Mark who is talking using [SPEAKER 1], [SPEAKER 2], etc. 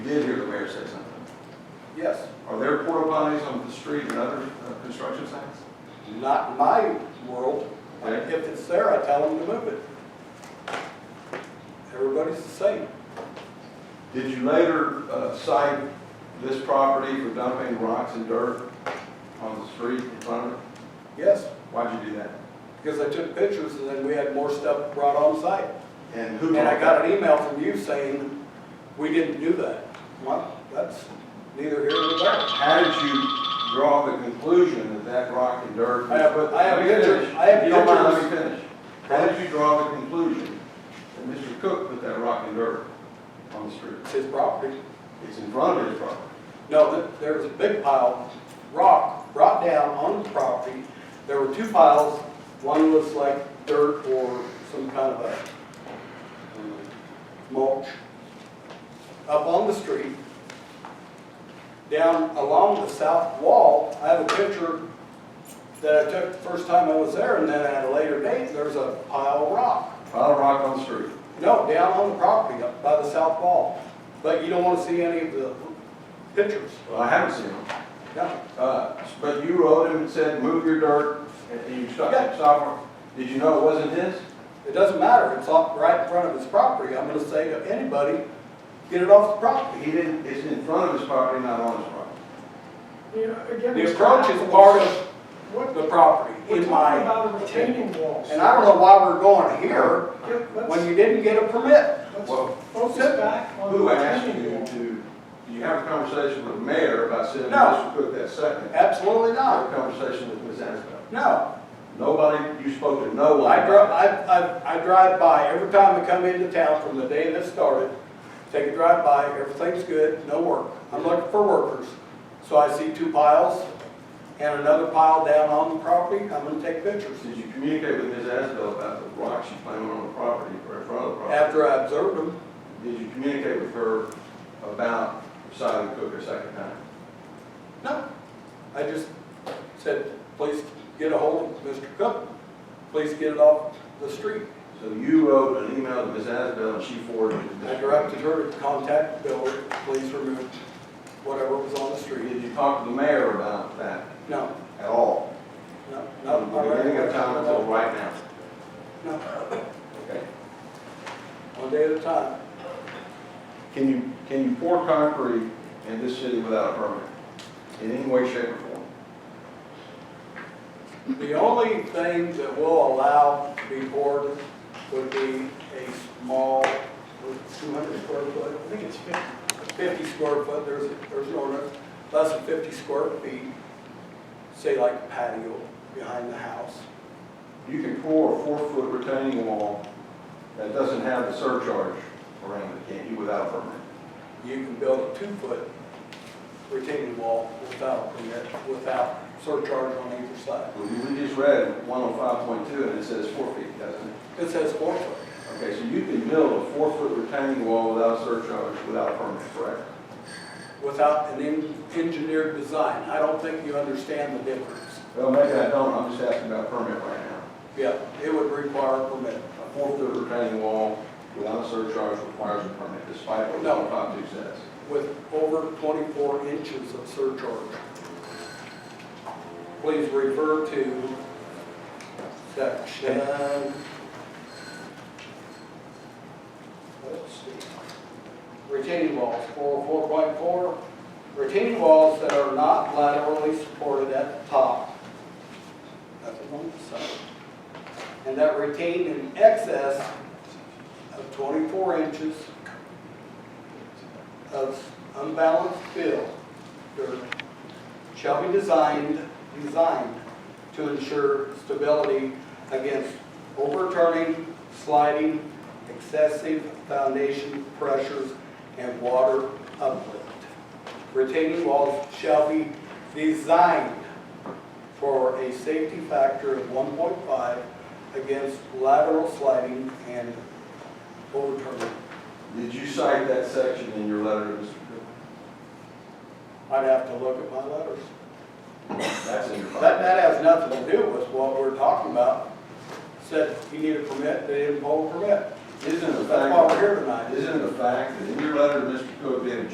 [SPEAKER 1] did hear the mayor say something.
[SPEAKER 2] Yes,
[SPEAKER 1] Are there porta potties on the street and other uh, construction sites?
[SPEAKER 2] not in my world.
[SPEAKER 1] Okay.
[SPEAKER 2] If it's there, I tell them to move it. Everybody's the same.
[SPEAKER 1] Did you later uh, cite this property for dumping rocks and dirt on the street in front of it?
[SPEAKER 2] Yes,
[SPEAKER 1] Why'd you do that?
[SPEAKER 2] because I took pictures and then we had more stuff brought on site.
[SPEAKER 1] And who?
[SPEAKER 2] And I got an email from you saying, we didn't do that. Well, that's neither here nor there.
[SPEAKER 1] How did you draw the conclusion that that rock and dirt?
[SPEAKER 2] I have- I have
[SPEAKER 1] Let me finish.
[SPEAKER 2] pictures- I have
[SPEAKER 1] You don't mind, let
[SPEAKER 2] pictures.
[SPEAKER 1] me finish. How did you draw the conclusion that Mr. Cook put that rock and dirt on the street?
[SPEAKER 2] It's his property.
[SPEAKER 1] It's in front of his property.
[SPEAKER 2] No, th- there was a big pile of rock brought down on the property. There were two piles. One was like dirt or some kind of a um, mulch up on the street. Down along the south wall, I have a picture that I took the first time I was there, and then at a later date, there's a pile of rock.
[SPEAKER 1] Pile of rock on the street.
[SPEAKER 2] No, down on the property, up by the south wall. But you don't want to see any of the pictures.
[SPEAKER 1] Well, I haven't seen him.
[SPEAKER 2] No.
[SPEAKER 1] Uh, But you wrote him and said, move your dirt, and you stopped,
[SPEAKER 2] Yeah.
[SPEAKER 1] stopped. Did you know it wasn't his?
[SPEAKER 2] It doesn't matter, it's off, right in front of his property, I'm gonna say to anybody, get it off the property.
[SPEAKER 1] He didn't, it's in front of his property, not on his property.
[SPEAKER 3] You know, again,
[SPEAKER 2] The
[SPEAKER 3] it's
[SPEAKER 2] approach
[SPEAKER 3] not-
[SPEAKER 2] is part of
[SPEAKER 3] What-
[SPEAKER 2] the property,
[SPEAKER 3] We're
[SPEAKER 2] in my,
[SPEAKER 3] talking about a retaining wall.
[SPEAKER 2] and I don't know why we're going here,
[SPEAKER 3] Yeah, let's-
[SPEAKER 2] when you didn't get a permit.
[SPEAKER 1] Well,
[SPEAKER 3] Let's focus back on the
[SPEAKER 1] Who asked you
[SPEAKER 3] retaining wall.
[SPEAKER 1] to, did you have a conversation with the mayor about sending
[SPEAKER 2] No.
[SPEAKER 1] Mr. Cook that second?
[SPEAKER 2] Absolutely
[SPEAKER 1] Have
[SPEAKER 2] not,
[SPEAKER 1] a conversation with Ms. Ansbell.
[SPEAKER 2] no.
[SPEAKER 1] Nobody, you spoke to no one.
[SPEAKER 2] I drive, I, I, I drive by, every time I come into town from the day this started, take a drive by, everything's good, no work. I'm looking for workers, so I see two piles and another pile down on the property, I'm gonna take pictures.
[SPEAKER 1] Did you communicate with Ms. Ansbell about the rocks she planted on the property or in front of the property?
[SPEAKER 2] After I observed them,
[SPEAKER 1] Did you communicate with her about citing Cook a second time?
[SPEAKER 2] No, I just said, please get a hold of Mr. Cook, please get it off the street.
[SPEAKER 1] So you wrote an email to Ms. Ansbell and she forwarded it to Mr.
[SPEAKER 2] I directed her to contact Bill, please remove whatever was on the street.
[SPEAKER 1] Did you talk to the mayor about that
[SPEAKER 2] No,
[SPEAKER 1] at all?
[SPEAKER 2] no,
[SPEAKER 1] From
[SPEAKER 2] no.
[SPEAKER 1] the beginning of time until right now?
[SPEAKER 2] No,
[SPEAKER 1] Okay.
[SPEAKER 2] one day at a time.
[SPEAKER 1] Can you, can you pour concrete in this city without a permit? In any way, shape, or form?
[SPEAKER 2] The only thing that will allow to be poured would be a small, two hundred square foot,
[SPEAKER 3] I think it's fifty.
[SPEAKER 2] 50 square foot, there's, there's an ordinance, less than 50 square feet, say like patio behind the house.
[SPEAKER 1] You can pour a four-foot retaining wall that doesn't have the surcharge around it, can you, without a permit?
[SPEAKER 2] You can build a two-foot retaining wall without, permit, without surcharge on either side.
[SPEAKER 1] Well, you- we just read one oh five point two, and it says four feet, doesn't it?
[SPEAKER 2] It says four foot.
[SPEAKER 1] Okay, so you can build a four-foot retaining wall without a surcharge, without a permit, correct?
[SPEAKER 2] without an en- engineered design. I don't think you understand the difference.
[SPEAKER 1] Well, maybe I don't, I'm just asking about permit right now.
[SPEAKER 2] Yeah, it would require a permit.
[SPEAKER 1] A four-foot retaining wall without a surcharge requires a permit, despite what
[SPEAKER 2] No.
[SPEAKER 1] one oh five two says.
[SPEAKER 2] with over 24 inches of surcharge. Please refer to section, let's see, retaining walls, 404.4, retaining walls that are not laterally supported at the top. That's one side. And that retain in excess of 24 inches of unbalanced fill dirt shall be designed, designed to ensure stability against overturning, sliding, excessive foundation pressures, and water uplift. Retaining walls shall be designed for a safety factor of 1.5 against lateral sliding and overturning.
[SPEAKER 1] Did you cite that section in your letter to Mr. Cook?
[SPEAKER 2] I'd have to look at my letters.
[SPEAKER 1] That's in your
[SPEAKER 2] That,
[SPEAKER 1] file.
[SPEAKER 2] that has nothing to do with what we're talking about. Said you need a permit, they didn't pull a permit.
[SPEAKER 1] Isn't the
[SPEAKER 2] That's why we're
[SPEAKER 1] fact,
[SPEAKER 2] here tonight.
[SPEAKER 1] isn't the fact that in your letter to Mr. Cook, that